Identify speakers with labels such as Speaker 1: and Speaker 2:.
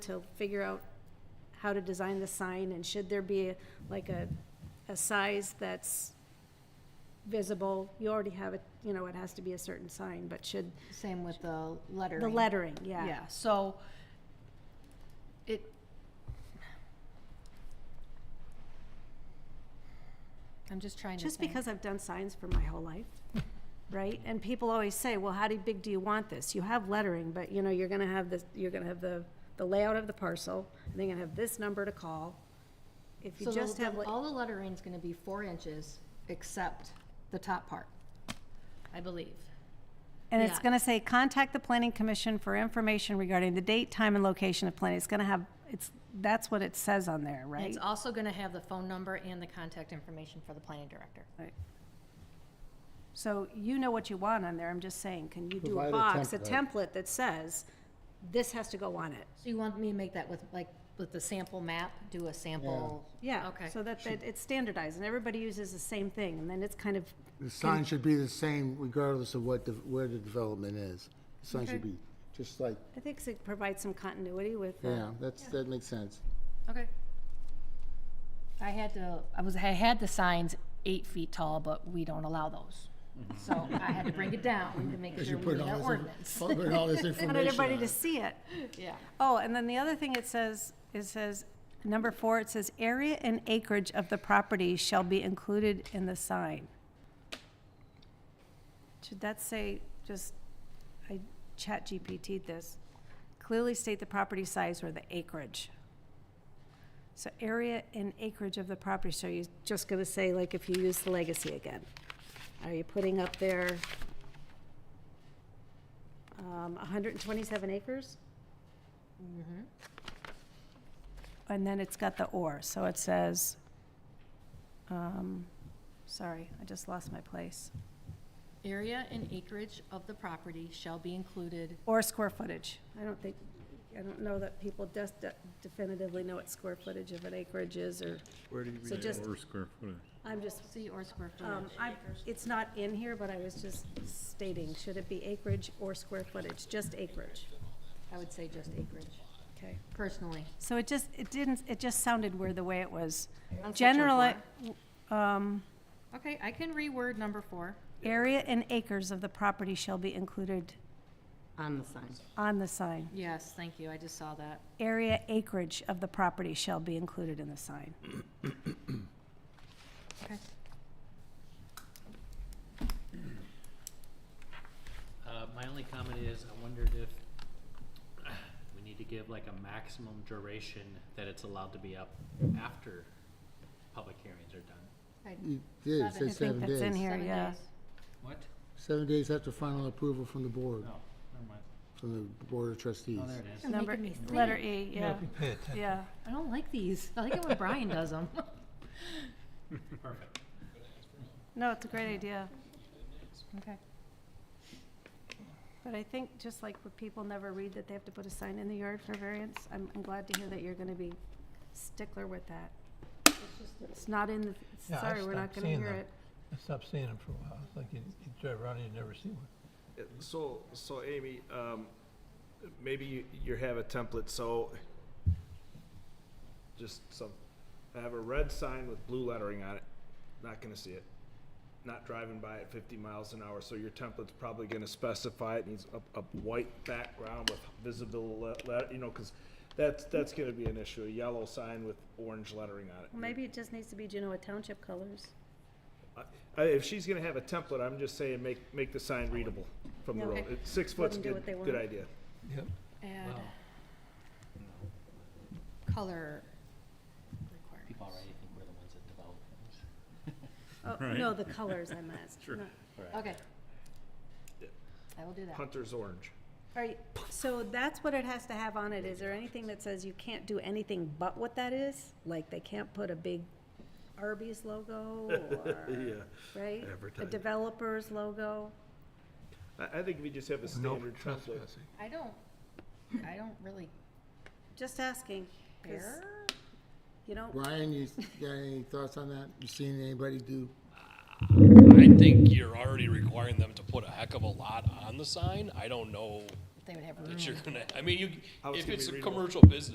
Speaker 1: to figure out how to design the sign, and should there be like a, a size that's visible? You already have it, you know, it has to be a certain sign, but should,
Speaker 2: Same with the lettering.
Speaker 1: the lettering, yeah.
Speaker 2: Yeah, so it. I'm just trying to
Speaker 1: Just
Speaker 2: think.
Speaker 1: because I've done signs for my whole life, right? And people always say, well, how do- big do you want this? You have lettering, but you know, you're gonna have this, you're gonna have the, the layout of the parcel, and then you're gonna have this number to call. If you
Speaker 2: So the-
Speaker 1: just have,
Speaker 2: the-
Speaker 1: like-
Speaker 2: All the lettering's gonna be four inches, except the top part, I believe.
Speaker 1: And it's
Speaker 2: Yeah.
Speaker 1: gonna say, contact the planning commission for information regarding the date, time, and location of planning. It's gonna have, it's, that's what it says on there,
Speaker 2: And
Speaker 1: right?
Speaker 2: It's also gonna have the phone number and the contact information for the planning director.
Speaker 1: Right. So you know what you want on there, I'm just saying, can you do
Speaker 3: Provide
Speaker 1: a
Speaker 3: a
Speaker 1: box, a
Speaker 3: template.
Speaker 1: template that says, this has to go on it?
Speaker 2: So you want me to make that with, like, with the sample map, do a sample?
Speaker 1: Yeah.
Speaker 2: Okay.
Speaker 1: So that, that it's standardized and everybody uses the same thing, and then it's kind of,
Speaker 3: The sign should be the same regardless of what, the- where the development is. The sign should
Speaker 2: Okay.
Speaker 3: be, just like,
Speaker 1: I think it provides some continuity with, uh,
Speaker 3: yeah, that's, that makes sense.
Speaker 2: Okay. I had to, I was, I had the signs eight feet tall, but we don't allow those. So I had to bring it down to make sure we meet our ordinance.
Speaker 3: Put all this
Speaker 1: I want
Speaker 3: information
Speaker 1: everybody
Speaker 2: uh,
Speaker 3: on
Speaker 1: to
Speaker 3: it.
Speaker 1: see it.
Speaker 2: Yeah.
Speaker 1: Oh, and then the other thing it says, it says, number four, it says, area and acreage of the property shall be included in the sign. Should that say, just, I chat GPT'd this, clearly state the property size or the acreage. So area and acreage of the property, so you're just gonna say, like, if you use the legacy again, are you putting up there um, hundred and twenty-seven acres? And then it's got the or, so it says, um, sorry, I just lost my place.
Speaker 2: Area and acreage of the property shall be included.
Speaker 1: Or square footage. I don't think, I don't know that people des- de- definitively know what square footage of an acreage is, or,
Speaker 4: Where do you
Speaker 1: So
Speaker 4: read
Speaker 1: just-
Speaker 4: that or square footage?
Speaker 1: I'm just,
Speaker 2: See, or square
Speaker 1: um,
Speaker 2: footage.
Speaker 1: I, it's not in here, but I was just stating, should it be acreage or square footage? Just acreage,
Speaker 2: I would say just acreage,
Speaker 1: okay?
Speaker 2: personally.
Speaker 1: So it just, it didn't, it just sounded weird the way it was.
Speaker 2: On section
Speaker 1: Generally, um,
Speaker 2: Okay, I can reword number four.
Speaker 1: Area and acres of the property shall be included
Speaker 5: On the sign.
Speaker 1: on the sign.
Speaker 2: Yes, thank you, I just saw that.
Speaker 1: Area acreage of the property shall be included in the sign.
Speaker 2: Okay.
Speaker 6: Uh, my only comment is, I wondered if we need to give like a maximum duration that it's allowed to be up after public hearings are done.
Speaker 2: I-
Speaker 3: You
Speaker 2: Seven.
Speaker 3: did, it
Speaker 2: I
Speaker 3: said
Speaker 2: think
Speaker 3: seven
Speaker 1: that's in
Speaker 3: days.
Speaker 1: here.
Speaker 2: seven
Speaker 1: yeah.
Speaker 2: days.
Speaker 6: What?
Speaker 3: Seven days after final approval from the board,
Speaker 6: No, never mind.
Speaker 3: from the board of trustees.
Speaker 6: Oh, there it is.
Speaker 2: You're
Speaker 1: Number,
Speaker 2: making me think.
Speaker 1: letter E, yeah, yeah.
Speaker 2: I don't like these. I like it when Brian does them.
Speaker 6: Perfect.
Speaker 1: No, it's a great idea,
Speaker 2: Okay.
Speaker 1: but I think just like where people never read that they have to put a sign in the yard for variance, I'm, I'm glad to hear that you're gonna be stickler with that. It's not in the,
Speaker 7: Yeah, I
Speaker 1: sorry, we're not
Speaker 7: stopped
Speaker 1: gonna
Speaker 7: seeing
Speaker 1: hear
Speaker 7: them.
Speaker 1: it.
Speaker 7: I stopped seeing them for a while. It's like you, you drive around and you never see one.
Speaker 8: Yeah, So, so Amy, um, maybe you, you have a template, so just some, I have a red sign with blue lettering on it, not gonna see it. Not driving by at fifty miles an hour, so your template's probably gonna specify it needs a, a white background with visible le- le- you know, cause that's, that's gonna be an issue, a yellow sign with orange lettering on it.
Speaker 1: Well, Maybe it just needs to be Genoa Township colors.
Speaker 8: I, if she's gonna have a template, I'm just saying, make, make the sign readable from the
Speaker 1: Yeah.
Speaker 8: road.
Speaker 1: Okay.
Speaker 8: It's- Six foot's
Speaker 1: them do
Speaker 8: good,
Speaker 1: what they
Speaker 8: good
Speaker 1: want.
Speaker 8: idea.
Speaker 7: Yep.
Speaker 2: Add
Speaker 6: Well,
Speaker 2: color
Speaker 6: people
Speaker 2: requirements.
Speaker 6: already think we're the ones that develop things.
Speaker 1: Oh,
Speaker 4: Right.
Speaker 1: no, the colors I meant. Sure.
Speaker 2: Okay. I will do that.
Speaker 8: Hunter's orange.
Speaker 1: All right, so that's what it has to have on it. Is there anything that says you can't do anything but what that is? Like they can't put a big Arby's logo or, right? A
Speaker 8: advertising.
Speaker 1: developer's logo?
Speaker 8: I, I think we just have a
Speaker 7: No
Speaker 8: standard template.
Speaker 7: trespassing.
Speaker 2: I don't, I don't really
Speaker 1: Just asking. 'cause
Speaker 2: care.
Speaker 1: You don't,
Speaker 3: Brian, you got any thoughts on that? You seen anybody do?
Speaker 9: I think you're already requiring them to put a heck of a lot on the sign. I don't know
Speaker 2: They would have room.
Speaker 9: that you're gonna, I mean, you,
Speaker 8: How it's
Speaker 9: if
Speaker 8: gonna
Speaker 9: it's
Speaker 8: be
Speaker 9: a
Speaker 8: readable.
Speaker 9: commercial business.